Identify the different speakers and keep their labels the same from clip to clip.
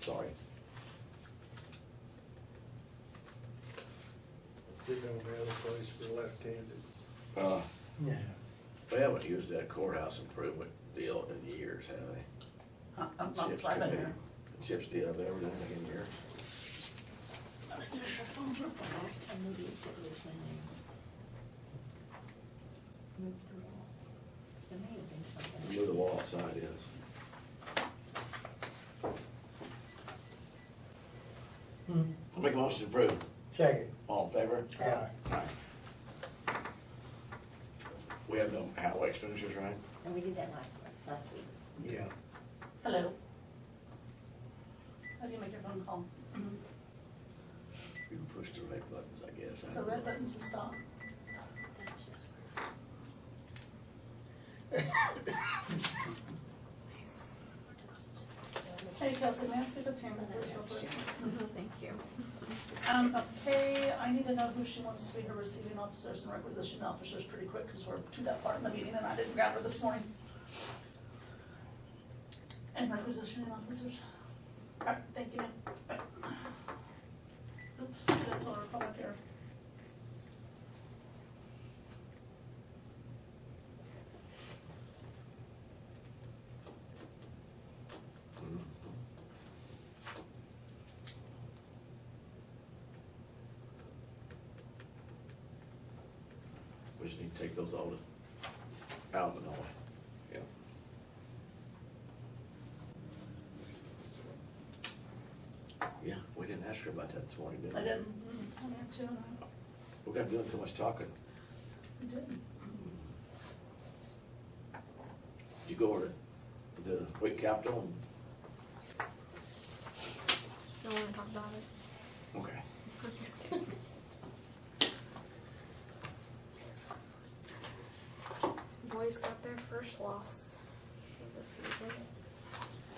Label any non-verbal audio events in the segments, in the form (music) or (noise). Speaker 1: sorry.
Speaker 2: Did know the other place for left-handed.
Speaker 1: Uh,
Speaker 3: Yeah.
Speaker 1: They haven't used that courthouse improvement deal in years, have they?
Speaker 3: I'm, I'm not
Speaker 1: Chip's
Speaker 3: slapping
Speaker 1: committee-
Speaker 3: her.
Speaker 1: Chip's deal, have everything in years.
Speaker 3: There's your phone number, last time we used it was when they moved the wall. There may have been
Speaker 1: You know
Speaker 3: something.
Speaker 1: the wall outside is.
Speaker 4: Hmm.
Speaker 1: I'll make a motion to approve.
Speaker 4: Second.
Speaker 1: All in favor?
Speaker 4: Aye.
Speaker 1: Aye. We have no highway expenditures, right?
Speaker 3: And we did that last one, last week.
Speaker 2: Yeah.
Speaker 3: Hello? How do you make your phone call? Mm-hmm.
Speaker 1: You can push the right buttons, I guess. I
Speaker 3: The
Speaker 1: don't
Speaker 3: red
Speaker 1: know.
Speaker 3: button's to stop.
Speaker 5: Hey Kelsey, may I see the chamber please, real quick?
Speaker 6: Mm-hmm, Thank you.
Speaker 5: Um, okay, I need to know who she wants to be her receiving officers and requisition officers pretty quick, because we're to that part in the meeting, and I didn't grab her this morning. And requisitioning officers. All right, thank you, ma'am. All right. Oops, did I pull her phone up here?
Speaker 1: Mhm. We just need to take those all to- out of the noise. Yeah. Yeah, we didn't ask her about that this morning, did we?
Speaker 5: I didn't, mm, I didn't, too, no,
Speaker 1: We got doing too much talking.
Speaker 5: I didn't.
Speaker 1: Did you go over to the Wake Capitol? and-
Speaker 6: Don't wanna talk about it.
Speaker 1: Okay.
Speaker 6: I'm just kidding. Boys got their first loss of the season.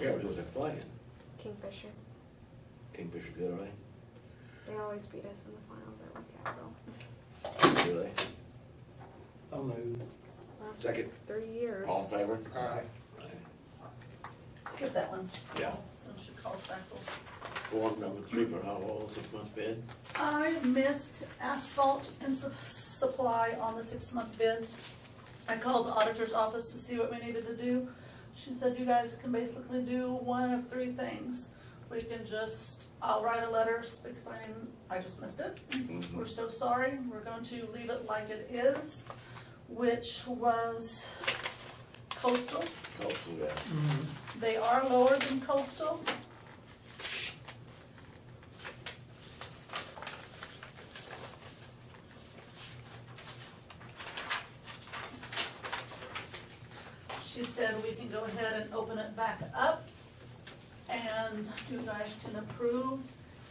Speaker 1: Yeah, but it was a flag.
Speaker 6: Kingfisher.
Speaker 1: Kingfisher good, all right?
Speaker 6: They always beat us in the finals at Lake Capitol.
Speaker 1: Really?
Speaker 4: I'll move.
Speaker 6: Last
Speaker 1: Second.
Speaker 6: Three years.
Speaker 1: All in favor?
Speaker 4: Aye.
Speaker 5: Skip that one,
Speaker 1: Yeah.
Speaker 5: so she calls back. We'll
Speaker 1: Form number three for hot oil, six months bid.
Speaker 5: I missed asphalt and su- supply on the six-month bids. I called the auditor's office to see what we needed to do. She said, you guys can basically do one of three things. We can just, I'll write a letter explaining, I just missed it.
Speaker 1: Mm-hmm.
Speaker 5: We're so sorry, we're going to leave it like it is, which was coastal.
Speaker 1: Coastal, yeah.
Speaker 5: They are lower than coastal. She said we can go ahead and open it back up and you guys can approve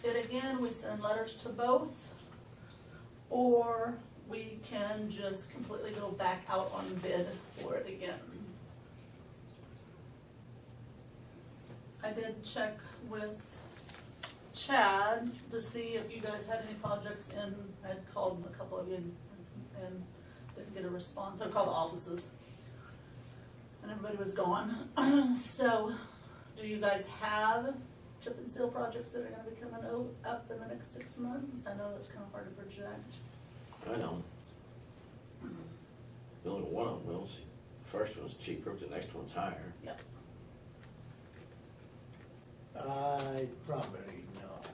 Speaker 5: it again. We send letters to both. Or we can just completely go back out on bid for it again. I did check with Chad to see if you guys had any projects in, I'd called a couple of you and, and didn't get a response, I called the offices. And everybody was gone, (clears throat) so do you guys have chip and seal projects that are gonna be coming o- up in the next six months? I know that's kinda hard to project.
Speaker 1: I know. The only one on wheels, first one's cheaper, the next one's higher.
Speaker 4: I probably not.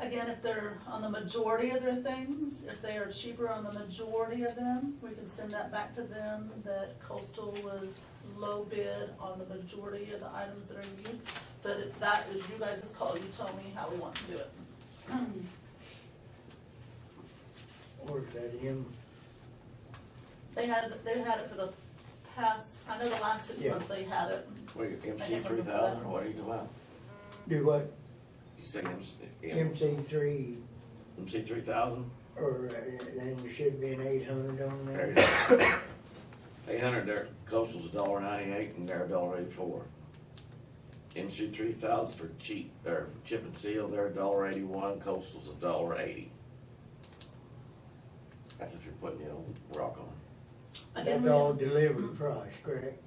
Speaker 5: Again, if they're on the majority of their things, if they are cheaper on the majority of them, we can send that back to them that coastal was low bid on the majority of the items that are used. But if that is you guys' call, you tell me how we want to do it.
Speaker 4: Or is that him?
Speaker 5: They had, they had it for the past, I know the last six
Speaker 4: Yeah.
Speaker 5: months they had it.
Speaker 1: What, you MC
Speaker 5: I can't
Speaker 1: three
Speaker 5: remember
Speaker 1: thousand,
Speaker 5: that.
Speaker 1: or what are you talking about?
Speaker 4: Do what?
Speaker 1: You say MC?
Speaker 4: MC three,
Speaker 1: MC three thousand?
Speaker 4: or uh, then there should be an eight hundred on
Speaker 1: There you
Speaker 4: there.
Speaker 1: go. Eight hundred, their coastal's a dollar ninety-eight and they're a dollar eighty-four. MC three thousand for cheap, or for chip and seal, they're a dollar eighty-one, coastal's a dollar eighty. That's if you're putting, you know, rock on.
Speaker 5: Again,
Speaker 4: That's
Speaker 5: we-
Speaker 4: all delivered price, correct?